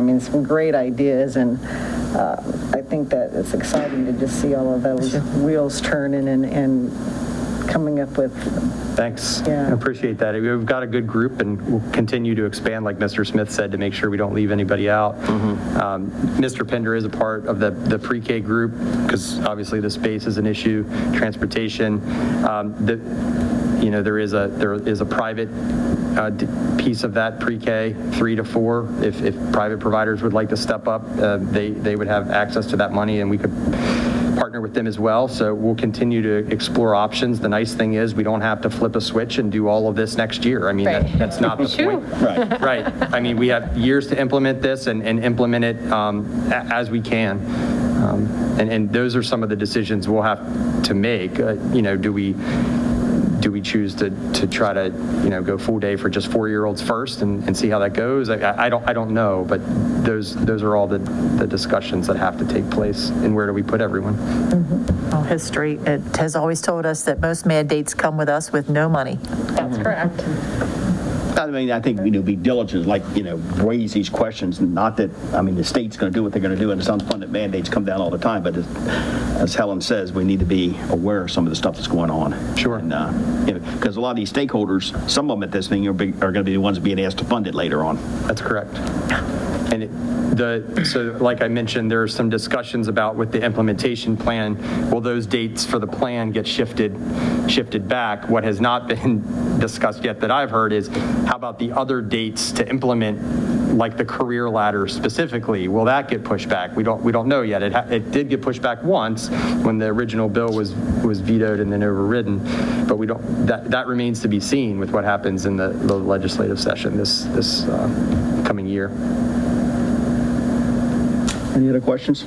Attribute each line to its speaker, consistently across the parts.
Speaker 1: mean, some great ideas, and uh, I think that it's exciting to just see all of those wheels turning and, and coming up with,
Speaker 2: Thanks.
Speaker 1: Yeah.
Speaker 2: I Appreciate that. We've got a good group and we'll continue to expand, like Mr. Smith said, to make sure we don't leave anybody out. Um, Mr. Pender is a part of the, the pre-K group because obviously the space is an issue, transportation. Um, The, you know, there is a, there is a private uh, d- piece of that pre-K, three to four. If, if private providers would like to step up, uh, they, they would have access to that money and we could partner with them as well. So we'll continue to explore options. The nice thing is, we don't have to flip a switch and do all of this next year. I mean, that-
Speaker 3: Right.
Speaker 2: that's not the point.
Speaker 4: Right.
Speaker 2: Right. I mean, we have years to implement this and, and implement it um, a- as we can. Um, And, and those are some of the decisions we'll have to make. Uh, You know, do we, do we choose to, to try to, you know, go full day for just four-year-olds first and, and see how that goes? I- I, I don't, I don't know, but those, those are all the, the discussions that have to take place. And where do we put everyone?
Speaker 5: Well, History, it has always told us that most mad dates come with us with no money.
Speaker 3: That's correct.
Speaker 4: I mean, I think, you know, be diligent, like, you know, raise these questions, not that, I mean, the state's going to do what they're going to do, and it's unfunded mandates come down all the time, but as- as Helen says, we need to be aware of some of the stuff that's going on.
Speaker 2: Sure.
Speaker 4: And, uh, you know, because a lot of these stakeholders, some of them at this thing are big- are going to be the ones being asked to fund it later on.
Speaker 2: That's correct. And it- the, so like I mentioned, there are some discussions about with the implementation plan, will those dates for the plan get shifted, shifted back? What has not been discussed yet that I've heard is, how about the other dates to implement, like the career ladder specifically? Will that get pushed back? We don't, we don't know yet. It, ha- it did get pushed back once when the original bill was, was vetoed and then overridden, but we don't, that, that remains to be seen with what happens in the the legislative session this, this uh, coming year.
Speaker 4: Any other questions?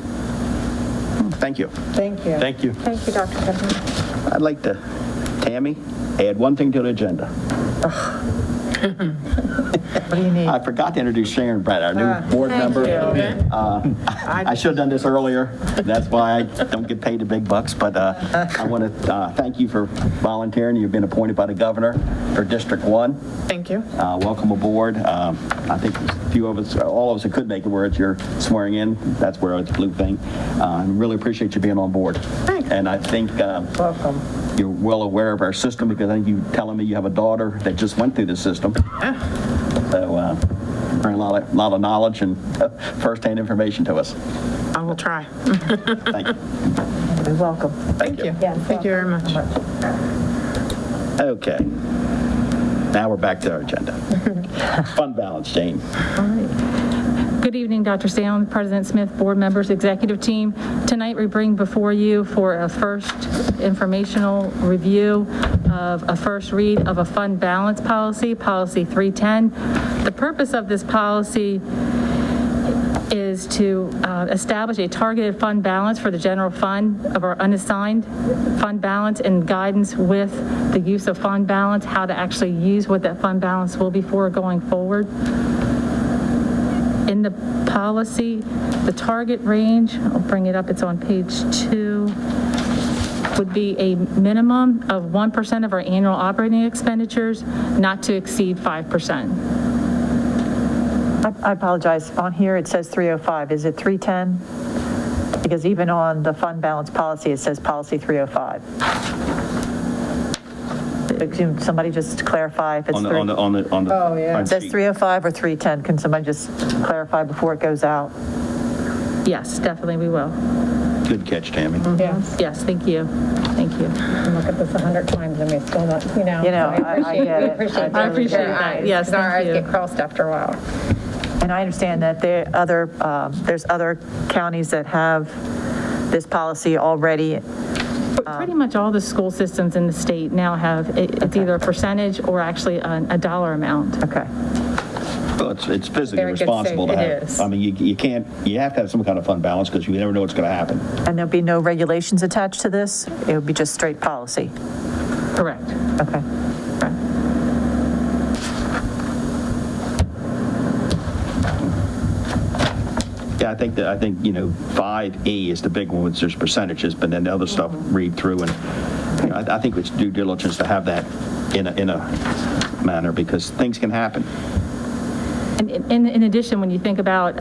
Speaker 4: Thank you.
Speaker 1: thank you.
Speaker 2: Thank you.
Speaker 3: Thank you, Dr. Pender.
Speaker 4: I'd like to, Tammy, add one thing to the agenda.
Speaker 5: What do you need?
Speaker 4: I forgot to introduce Sharon Brett, our new board member. Uh, I should have done this earlier. That's why I don't get paid the big bucks, but uh, I want to thank you for volunteering. You've been appointed by the governor for District 1.
Speaker 3: Thank you.
Speaker 4: Uh, Welcome aboard. Um, I think a few of us, all of us that could make it where it's your swearing in, that's where it's blue thing. Uh, I Really appreciate you being on board.
Speaker 3: Thanks.
Speaker 4: And I think uh,
Speaker 1: Welcome.
Speaker 4: you're well aware of our system because I think you telling me you have a daughter that just went through the system. So, uh, bring a lot of, lot of knowledge and uh, firsthand information to us.
Speaker 3: I will try.
Speaker 4: Thank you.
Speaker 5: You're welcome.
Speaker 3: Thank you. Thank you very much.
Speaker 4: Okay. Now we're back to our agenda. Fund balance, Jane.
Speaker 6: Good evening, Dr. Salem, President Smith, board members, executive team. Tonight, we bring before you for a first informational review of a first read of a fund balance policy, Policy 310. The purpose of this policy is to uh, establish a targeted fund balance for the general fund of our unassigned fund balance and guidance with the use of fund balance, how to actually use what that fund balance will be for going forward in the policy, the target range, I'll bring it up, it's on page two, would be a minimum of 1% of our annual operating expenditures, not to exceed 5%.
Speaker 5: I I apologize. On here, it says 305. Is it 310? Because even on the fund balance policy, it says policy 305. But Can somebody just clarify if it's
Speaker 4: On the, on
Speaker 5: 3?
Speaker 4: the, on the, on the.
Speaker 1: Oh, yeah.
Speaker 5: It says 305 or 310? Can somebody just clarify before it goes out?
Speaker 6: Yes, definitely we will.
Speaker 4: Good catch, Tammy.
Speaker 3: Mm-hmm.
Speaker 1: Yes,
Speaker 6: Yes, thank you, thank you.
Speaker 1: I look at this 100 times and we still not, you know.
Speaker 5: You know, I I get it.
Speaker 6: I appreciate that, yes,
Speaker 3: Our
Speaker 6: thank
Speaker 3: eyes
Speaker 6: you.
Speaker 3: get crossed after a while.
Speaker 5: And I understand that there other, um, there's other counties that have this policy already.
Speaker 6: Pretty much all the school systems in the state now have, it- it's either a percentage or actually an- a dollar amount.
Speaker 5: Okay.
Speaker 4: Well, it's, it's physically
Speaker 3: Very good save.
Speaker 4: responsible to
Speaker 3: It
Speaker 4: have.
Speaker 3: is.
Speaker 4: I mean, you, you can't, you have to have some kind of fund balance because you never know what's going to happen.
Speaker 5: And there'll be no regulations attached to this? It would be just straight policy?
Speaker 6: Correct.
Speaker 5: Okay.
Speaker 4: Yeah, I think that, I think, you know, 5E is the big one, which there's percentages, but then the other stuff, read through, and you know, I I think it's due diligence to have that in a, in a manner, because things can happen.
Speaker 6: And in- in addition, when you think about